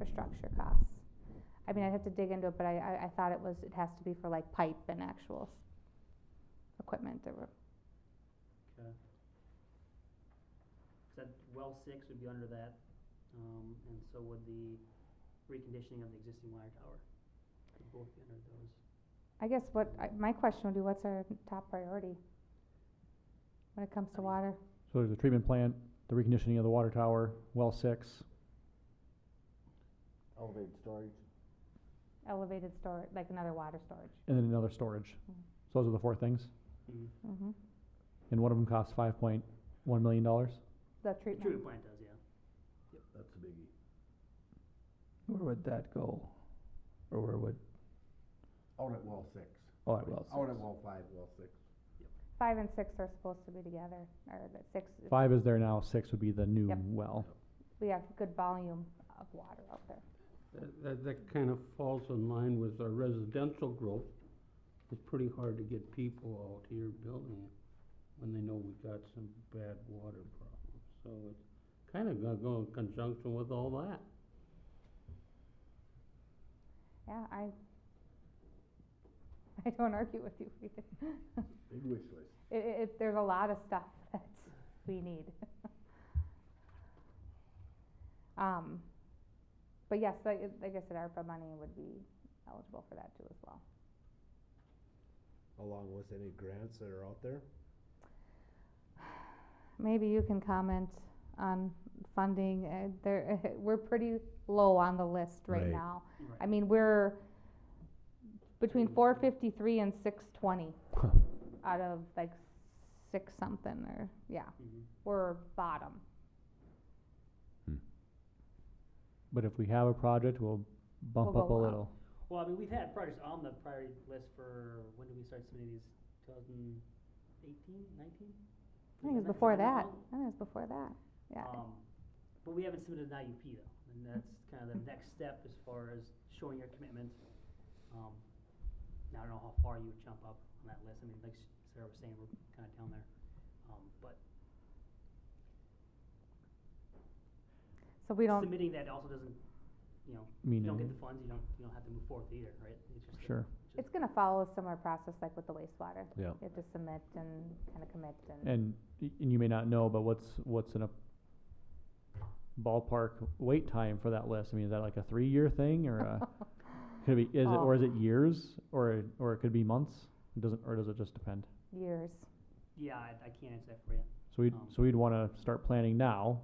infrastructure costs? I mean, I'd have to dig into it, but I, I, I thought it was, it has to be for like pipe and actual s- equipment that were, Okay. Said well six would be under that, um, and so would the reconditioning of the existing wire tower. Could both be under those. I guess what, I, my question would be, what's our top priority? When it comes I to mean- water, So there's a treatment plant, the reconditioning of the water tower, well six. elevated storage. elevated storage, like another water storage. and then another storage. Mm. So those are the four things, Mm-hmm. hmm and one of them costs five point one million dollars. the The treatment, treatment plant does, yeah. That's a biggie. Where would that go? Or where would, Out at well six. oh, at well Out at six. well five, well six. five and six are supposed to be together, or the six, it's- Five is there now, six would be the new Yep. well. we have good volume of water out there. That- That, that kind of falls in line with our residential growth. It's pretty hard to get people out here building when they know we got some bad water problems. So it's kind of gonna go in conjunction with all that. Yeah, I, I don't argue with you. Rita. Big wish list. It, it, it- there's a lot of stuff that we need. Um, but yes, like, it- like I said, ARPA money would be eligible for that too as well. Along with any grants that are out there? Maybe you can comment on funding, uh, there, we're pretty low on the list right Right. now. I Right. mean, we're between Pretty four much. fifty-three and six twenty out of like six something or, yeah, Mhm. we're bottom. But if we have a project, we'll bump We'll up a go up. little. Well, I mean, we've had projects on the priority list for, when did we start submitting these? Two thousand eighteen, nineteen? I think it was before that, I think it was before that, yeah. Um, but we haven't submitted an IUP though, and that's kind of the next step as far as showing your commitment. Um, now I don't know how far you would jump up on that list, I mean, like Sarah was saying, we're kind of down there, um, but So we don't, submitting that also doesn't, you know, you don't get Meaning, the funds, you don't, you don't have to move forward either, right? It's just a- sure. just- it's gonna follow a similar process like with the wastewater. Yeah. You have to submit and kinda commit and, And, y- and you may not know, but what's, what's in a ballpark wait time for that list? I mean, is that like a three-year thing or a, could it be, is it, Oh. or is it years? Or, or it could be months? It Doesn't, or does it just depend? years. Yeah, I, I can't answer that for you. So we'd, Um, so we'd wanna start planning now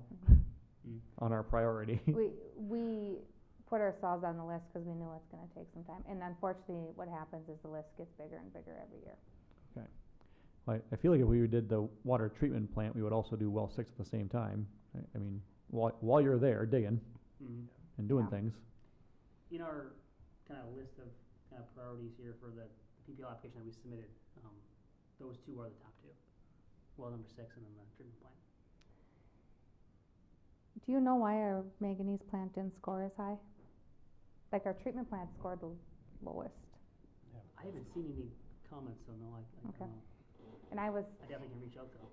Mm. on our priority. Mm-hmm. We, we put ourselves on the list because we knew it's gonna take some time, and unfortunately, what happens is the list gets bigger and bigger every year. I, I feel like if we did the water treatment plant, we would also do well six at the same time. I, I mean, while, while you're there digging Mhm. and doing Yeah. things, in our kind of list of kind of priorities here for the PPL application that we submitted, um, those two are the top two. Well, number six and then the treatment plant. Do you know why our manganese plant didn't score as high? Like, our treatment plant scored the lowest, I haven't seen any comments, so no, I, I Okay. don't know. and I was, I definitely can reach out though.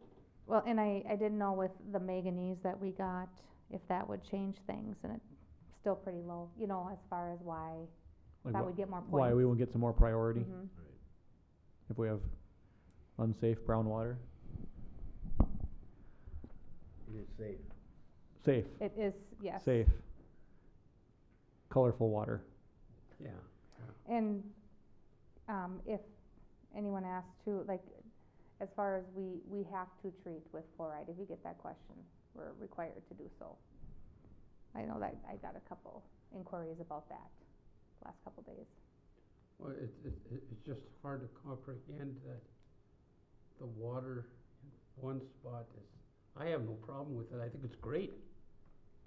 well, and I, I didn't know with the manganese that we got, if that would change things, and it's still pretty low, you know, as far as why, like that wh- would get more points. why we won't get some more priority Mhm. if we have unsafe brown water. It is safe. Safe, It is, yes. safe. Colorful water. Yeah. And, um, if anyone asks too, like, as far as we, we have to treat with fluoride, if you get that question, we're required to do so. I know that, I got a couple inquiries about that last couple days. Well, it, it, it- it's just hard to comprehend that the water in one spot is, I have no problem with it, I think it's great.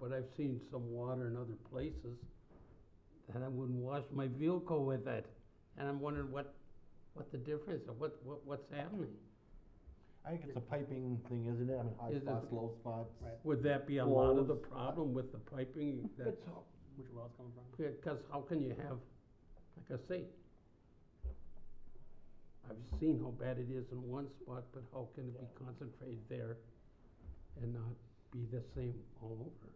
But I've seen some water in other places that I wouldn't wash my vehicle with it. And I'm wondering what, what the difference, or what, what, what's happening? I think it's a piping thing, isn't it? I mean, high It is. spots, low spots. Right. Would that be a lot of the Flows. problem with the piping that, It's, Which well it's coming from? because how can you have, like I say, I've seen how bad it is in one spot, but how can it be concentrated there and not be the same all over?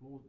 well,